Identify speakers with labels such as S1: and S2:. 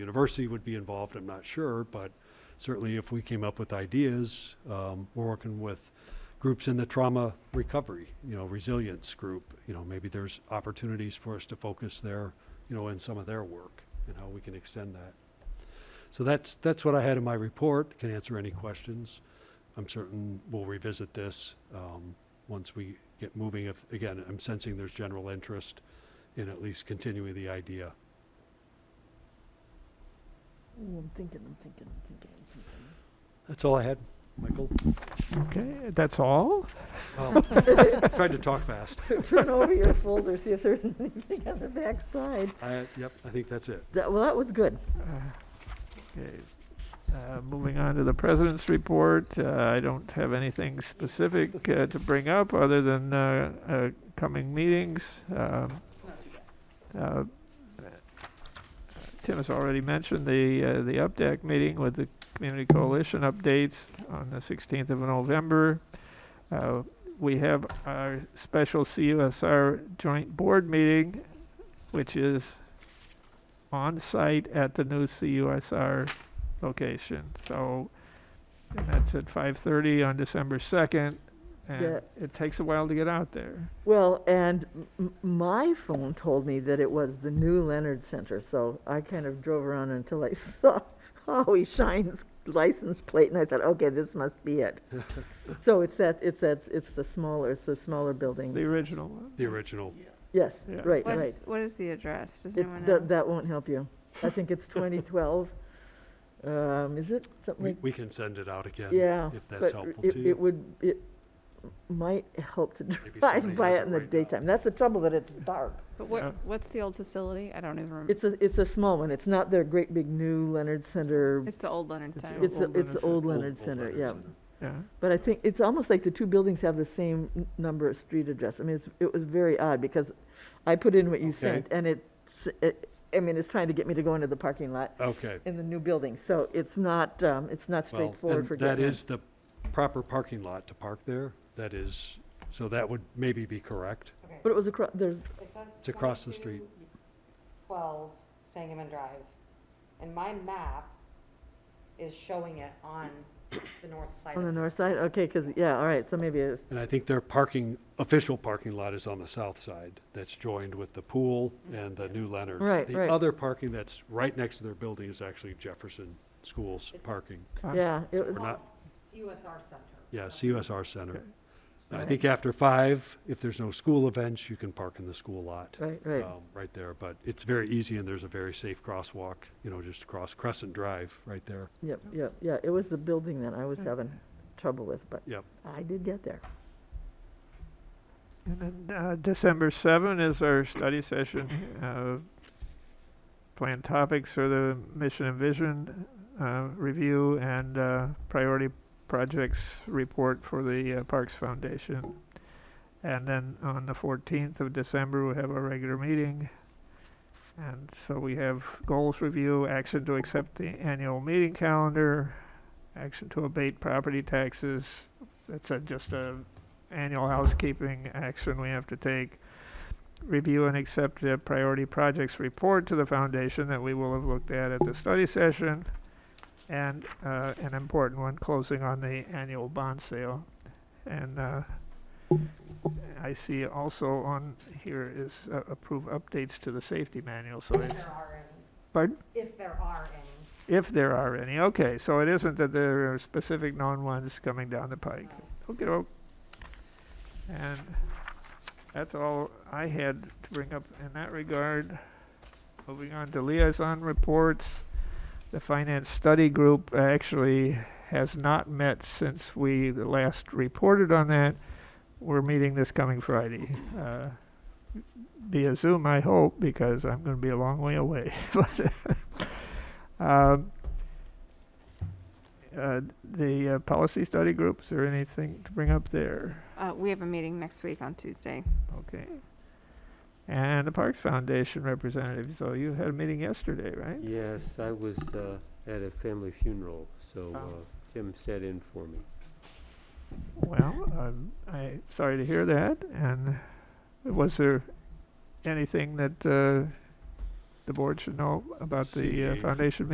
S1: university would be involved, I'm not sure, but certainly if we came up with ideas, um, we're working with groups in the trauma recovery, you know, resilience group, you know, maybe there's opportunities for us to focus there, you know, in some of their work and how we can extend that. So that's, that's what I had in my report, can answer any questions. I'm certain we'll revisit this, um, once we get moving. If, again, I'm sensing there's general interest in at least continuing the idea.
S2: Ooh, I'm thinking, I'm thinking, I'm thinking, I'm thinking.
S1: That's all I had, Michael.
S3: Okay, that's all?
S1: Um, Tried to talk fast.
S2: Turn over your folder, see if there's anything on the back side.
S1: I, yep, I think that's it.
S2: That, well, that was good.
S3: Okay. Uh, Moving on to the president's report, uh, I don't have anything specific uh, to bring up other than uh, uh, coming meetings. Um, uh, Tim has already mentioned the, uh, the UPDAC meeting with the Community Coalition updates on the 16th of November. Uh, We have our special CUSR joint board meeting, which is on site at the new CUSR location. So and that's at 5:30 on December 2nd, and
S2: Yeah.
S3: it takes a while to get out there.
S2: Well, and m- m- my phone told me that it was the new Leonard Center, so I kind of drove around until I saw Howie Shine's license plate, and I thought, okay, this must be it. so it's that, it's that, it's the smaller, it's the smaller building.
S3: The original one.
S1: The original.
S2: yes,
S3: Yeah.
S2: right,
S4: What
S2: right.
S4: is, what is the address? Does
S2: It-
S4: anyone know?
S2: that, that won't help you. I think it's 2012. um, is it something
S1: We,
S2: like?
S1: we can send it out again.
S2: Yeah,
S1: If that's
S2: but
S1: helpful
S2: it,
S1: to
S2: it
S1: you.
S2: would, it might help to
S1: Maybe somebody
S2: drive by
S1: has
S2: it
S1: it
S2: in the
S1: right now.
S2: daytime. That's the trouble, that it's dark.
S4: But
S3: Yeah.
S4: what, what's the old facility? I don't even remember.
S2: It's a, it's a small one. It's not their great big new Leonard Center.
S4: It's the old Leonard
S3: It's the
S4: Center.
S2: It's, the-
S3: old
S2: it's the
S3: Leonard
S2: old
S1: Old-
S2: Leonard
S1: old
S2: Center,
S1: Leonard
S2: yeah.
S1: Center.
S3: Yeah.
S2: But I think, it's almost like the two buildings have the same n- number of street address. I mean, it's, it was very odd because I put in what you
S1: Okay.
S2: sent and it, it, I mean, it's trying to get me to go into the parking lot
S1: Okay.
S2: in the new building. So it's not, um, it's not
S1: Well,
S2: straightforward
S1: and
S2: for
S1: that
S2: getting in.
S1: is the proper parking lot to park there. That is, so that would maybe be correct.
S2: But it was across, there's,
S5: It says
S1: It's across the street.
S5: 22, Twelve Sangamon Drive, and my map is showing it on the north side.
S2: on the
S5: of
S2: north side? Okay, because, yeah, all right, so maybe it's,
S1: And I think their parking, official parking lot is on the south side. That's joined with the pool and the new Leonard.
S2: Right,
S1: The
S2: right.
S1: other parking that's right next to their building is actually Jefferson Schools parking.
S3: Uh,
S2: yeah. it
S1: We're
S2: was-
S1: not,
S5: CUSR Center.
S1: yeah, CUSR Center.
S3: Okay.
S1: And I
S2: Right.
S1: think after five, if there's no school events, you can park in the school lot.
S2: Right, right.
S1: um, Right there, but it's very easy and there's a very safe crosswalk, you know, just across Crescent Drive right there.
S2: Yep, yep, yeah, it was the building that I was having trouble with, but
S1: Yep.
S2: I did get there.
S3: And then uh, December 7 is our study session. Uh, planned topics are the mission and vision uh, review and uh, priority projects report for the uh, Parks Foundation. And then on the 14th of December, we have our regular meeting. And so we have goals review, action to accept the annual meeting calendar, action to abate property taxes. That's a, just a annual housekeeping action we have to take. Review and accept the priority projects report to the foundation that we will have looked at at the study session. And, uh, an important one, closing on the annual bond sale. And, uh, I see also on here is uh, approve updates to the safety manual, so
S5: If
S3: it's,
S5: there are any,
S3: pardon?
S5: if there are any.
S3: If there are any, okay, so it isn't that there are specific known ones coming down the pike.
S5: um,
S3: Okay, And that's all I had to bring up in that regard. Moving on to liaison reports. The Finance Study Group actually has not met since we last reported on that. We're meeting this coming Friday. uh, Via Zoom, I hope, because I'm gonna be a long way away. But, um, uh, the uh, policy study group, is there anything to bring up there?
S4: Uh, we have a meeting next week on Tuesday.
S3: Okay. And the Parks Foundation representative, so you had a meeting yesterday, right?
S6: Yes, I was uh, at a family funeral, so
S3: Oh.
S6: uh, Tim sat in for me.
S3: Well, I'm I, sorry to hear that, and was there anything that, uh, the board should know about the uh,
S6: CEA.
S3: foundation